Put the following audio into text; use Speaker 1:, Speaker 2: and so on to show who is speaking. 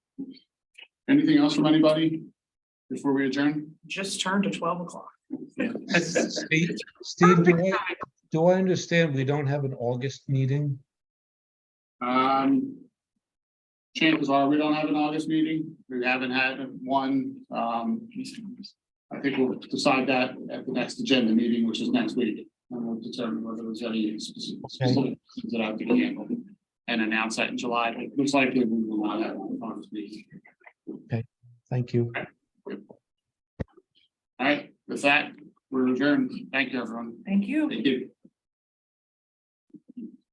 Speaker 1: Anything else from anybody? Before we adjourn?
Speaker 2: just turned to twelve o'clock.
Speaker 3: Steve, Steve, do I, do I understand we don't have an August meeting?
Speaker 1: Um. Chances are, we don't have an August meeting, we haven't had one, um. I think we'll decide that at the next agenda meeting, which is next week, and we'll determine whether there's any speci- specific things that I can handle. And announce that in July, but most likely we will not have an August meeting.
Speaker 3: Thank you.
Speaker 1: All right, with that, we're adjourned, thank you, everyone,
Speaker 2: Thank you.
Speaker 1: thank you.